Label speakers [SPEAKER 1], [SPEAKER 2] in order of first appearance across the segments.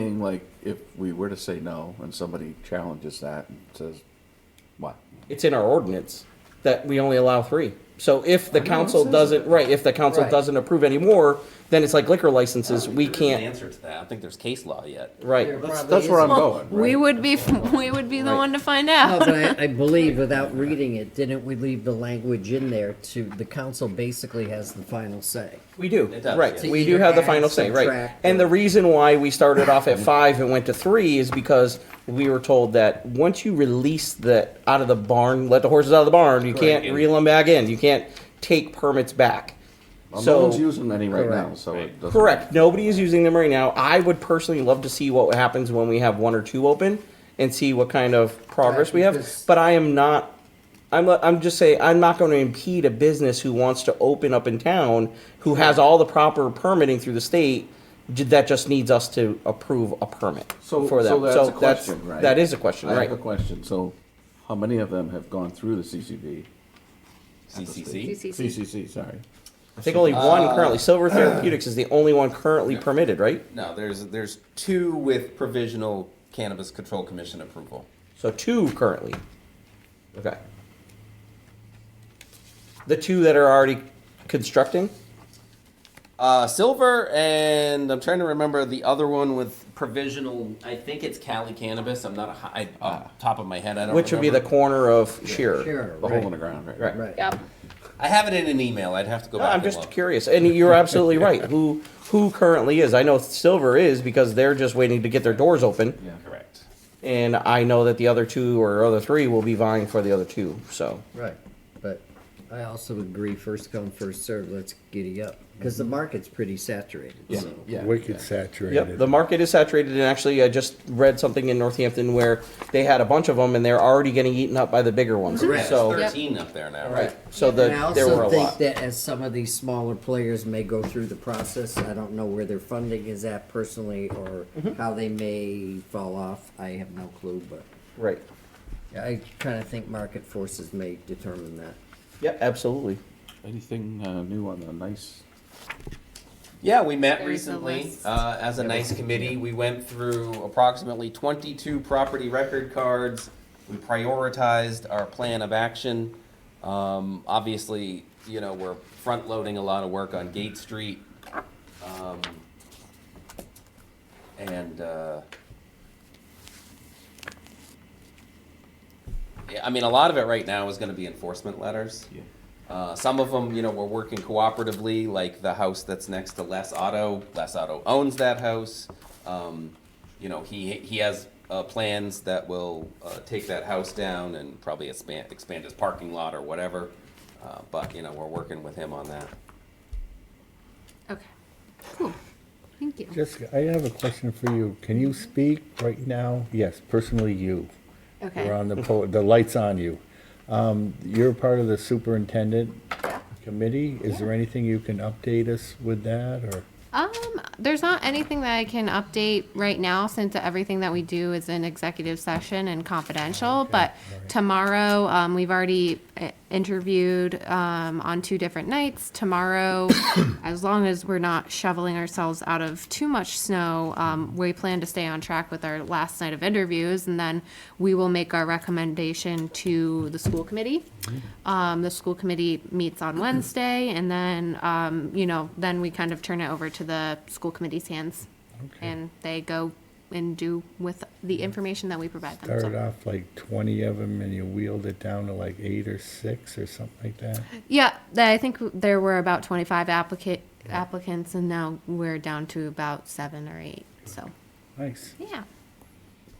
[SPEAKER 1] assume like if we were to say no and somebody challenges that and says, what?
[SPEAKER 2] It's in our ordinance that we only allow three. So if the
[SPEAKER 1] it
[SPEAKER 2] council
[SPEAKER 1] says
[SPEAKER 2] doesn't,
[SPEAKER 1] it.
[SPEAKER 2] right, if the council
[SPEAKER 1] Right.
[SPEAKER 2] doesn't approve anymore, then it's like liquor licenses,
[SPEAKER 3] I don't
[SPEAKER 2] we
[SPEAKER 3] think there's an
[SPEAKER 2] can't,
[SPEAKER 3] Answer to that. I don't think there's case law yet.
[SPEAKER 2] right.
[SPEAKER 1] That's, that's where I'm going,
[SPEAKER 4] We
[SPEAKER 1] right?
[SPEAKER 4] would be, we would be the
[SPEAKER 1] Right.
[SPEAKER 4] one to find
[SPEAKER 5] No,
[SPEAKER 4] out.
[SPEAKER 5] but I, I believe without reading it, didn't we leave the language in there to, the council basically has the final say?
[SPEAKER 2] We do,
[SPEAKER 3] It does,
[SPEAKER 2] right.
[SPEAKER 3] yeah.
[SPEAKER 2] We do have the final
[SPEAKER 5] To
[SPEAKER 2] say,
[SPEAKER 5] either add,
[SPEAKER 2] right.
[SPEAKER 5] subtract,
[SPEAKER 2] And the
[SPEAKER 5] or-
[SPEAKER 2] reason why we started off at five and went to three is because we were told that once you release the, out of the barn, let the horses out of the barn, you can't
[SPEAKER 3] And-
[SPEAKER 2] reel them back in. You can't take permits back.
[SPEAKER 1] Well, No one's
[SPEAKER 2] So,
[SPEAKER 1] using any right now,
[SPEAKER 5] Correct.
[SPEAKER 1] so it doesn't.
[SPEAKER 2] correct, nobody is using them right now. I would personally love to see what happens when we have one or two open and see what kind of progress we have.
[SPEAKER 5] because-
[SPEAKER 2] But I am not, I'm, I'm just saying, I'm not going to impede a business who wants to open up in town, who has all the proper permitting through the state, j- that just needs us to approve a permit
[SPEAKER 1] So,
[SPEAKER 2] for
[SPEAKER 1] so
[SPEAKER 2] them.
[SPEAKER 1] that's a question, right?
[SPEAKER 2] That is a question,
[SPEAKER 1] I
[SPEAKER 2] right?
[SPEAKER 1] have a question. So how many of them have gone through the CCB?
[SPEAKER 3] CCC.
[SPEAKER 1] CCC, sorry.
[SPEAKER 2] I think only one currently, Silver Therapeutics is the only one currently permitted, right?
[SPEAKER 3] No, there's, there's two with provisional Cannabis Control Commission approval.
[SPEAKER 2] So two currently. Okay. The two that are already constructing?
[SPEAKER 3] Uh, Silver and I'm trying to remember the other one with provisional. I think it's Cali Cannabis. I'm not a hi- I, off top of my head. I don't.
[SPEAKER 2] Ah. Which would be the
[SPEAKER 3] remember.
[SPEAKER 2] corner of Shearer.
[SPEAKER 5] Sure,
[SPEAKER 1] The hole in
[SPEAKER 5] right,
[SPEAKER 1] the ground, right?
[SPEAKER 2] Right.
[SPEAKER 5] right.
[SPEAKER 4] Yep.
[SPEAKER 3] I have it in an email. I'd have to go
[SPEAKER 2] No,
[SPEAKER 3] back.
[SPEAKER 2] I'm
[SPEAKER 3] and
[SPEAKER 2] just
[SPEAKER 3] look.
[SPEAKER 2] curious, and you're absolutely right. Who who currently is? I know Silver is because they're just waiting to get their doors open,
[SPEAKER 1] Yeah.
[SPEAKER 3] Correct.
[SPEAKER 2] and I know that the other two or other three will be vying for the other two. So
[SPEAKER 5] Right, but I also agree, first come, first served, let's giddy up, because the market's pretty saturated,
[SPEAKER 1] Yeah,
[SPEAKER 5] so.
[SPEAKER 1] yeah.
[SPEAKER 6] Wicked saturated.
[SPEAKER 2] Yep, the market is saturated, and actually, I just read something in Northampton where they had a bunch of them, and they're already getting eaten up by the bigger ones.
[SPEAKER 3] Correct.
[SPEAKER 2] So,
[SPEAKER 3] There's 13 up there now.
[SPEAKER 2] right, so
[SPEAKER 5] And I
[SPEAKER 2] the, there were
[SPEAKER 5] also
[SPEAKER 2] a
[SPEAKER 5] think
[SPEAKER 2] lot.
[SPEAKER 5] that as some of these smaller players may go through the process, I don't know where their funding is at personally, or how they may fall off, I have no clue, but
[SPEAKER 2] Right.
[SPEAKER 5] I kinda think market forces may determine that.
[SPEAKER 2] Yep, absolutely.
[SPEAKER 1] Anything uh, new on the nice?
[SPEAKER 3] Yeah, we met
[SPEAKER 4] There is a
[SPEAKER 3] recently
[SPEAKER 4] list.
[SPEAKER 3] uh, as a nice committee. We went through approximately 22 property record cards. We prioritized our plan of action. Um, Obviously, you know, we're front-loading a lot of work on Gate Street. Um, And, uh, yeah, I mean, a lot of it right now is going to be enforcement letters. Uh, some of them, you know, we're working cooperatively, like the house that's next to Les Auto. Les Auto owns that house. Um, you know, he he has uh, plans that will uh, take that house down and probably expand expand his parking lot or whatever. Uh, but you know, we're working with him on that.
[SPEAKER 4] Okay. Cool. Thank you.
[SPEAKER 6] Jessica, I have a question for you. Can you speak right now? Yes, personally, you. We're
[SPEAKER 4] Okay.
[SPEAKER 6] on the, po- the light's on you. Um, You're part of the superintendent committee. Is there anything you can update us with that, or?
[SPEAKER 4] Um, there's not anything that I can update right now since everything that we do is in executive session and confidential. But tomorrow, um, we've already uh, interviewed, um, on two different nights. Tomorrow, as long as we're not shoveling ourselves out of too much snow, um, we plan to stay on track with our last night of interviews and then we will make our recommendation to the school committee. Um, the school committee meets on Wednesday, and then, um, you know, then we kind of turn it over to the school committee's hands. And they go and do with the information that we provide them.
[SPEAKER 6] Started
[SPEAKER 4] So-
[SPEAKER 6] off like 20 of them and you wheeled it down to like eight or six or something like that?
[SPEAKER 4] Yeah, th- I think there were about twenty-five applicant, applicants, and now we're down to about seven or eight, so,
[SPEAKER 6] Nice.
[SPEAKER 4] yeah.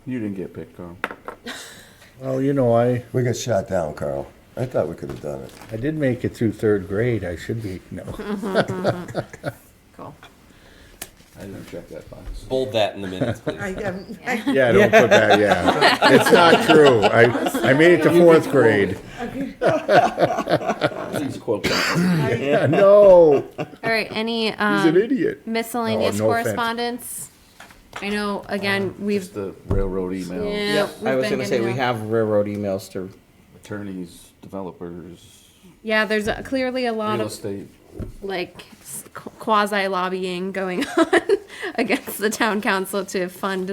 [SPEAKER 1] You didn't get picked, Carl.
[SPEAKER 6] Well, you know, I,
[SPEAKER 7] We got shot down, Carl. I thought we could have done it.
[SPEAKER 6] I did make it through third grade. I should be, no.
[SPEAKER 4] Cool.
[SPEAKER 1] I didn't check that box.
[SPEAKER 3] Bold that in the minutes, please.
[SPEAKER 8] I, um,
[SPEAKER 6] Yeah, don't put that, yeah. It's not true. I, I made it to fourth grade.
[SPEAKER 1] Please quote
[SPEAKER 6] Yeah, no,
[SPEAKER 4] All right, any,
[SPEAKER 6] he's an
[SPEAKER 4] um,
[SPEAKER 6] idiot.
[SPEAKER 4] miscellaneous
[SPEAKER 6] No, no offense. Um,
[SPEAKER 4] correspondence? I know, again, we've,
[SPEAKER 1] Just the railroad email,
[SPEAKER 4] yeah, we've
[SPEAKER 2] I was
[SPEAKER 4] been
[SPEAKER 2] gonna say,
[SPEAKER 4] getting
[SPEAKER 2] we
[SPEAKER 4] a-
[SPEAKER 2] have railroad emails to,
[SPEAKER 1] attorneys, developers,
[SPEAKER 4] Yeah, there's uh, clearly a lot
[SPEAKER 1] real
[SPEAKER 4] of
[SPEAKER 1] estate.
[SPEAKER 4] like quasi lobbying going on against the town council to fund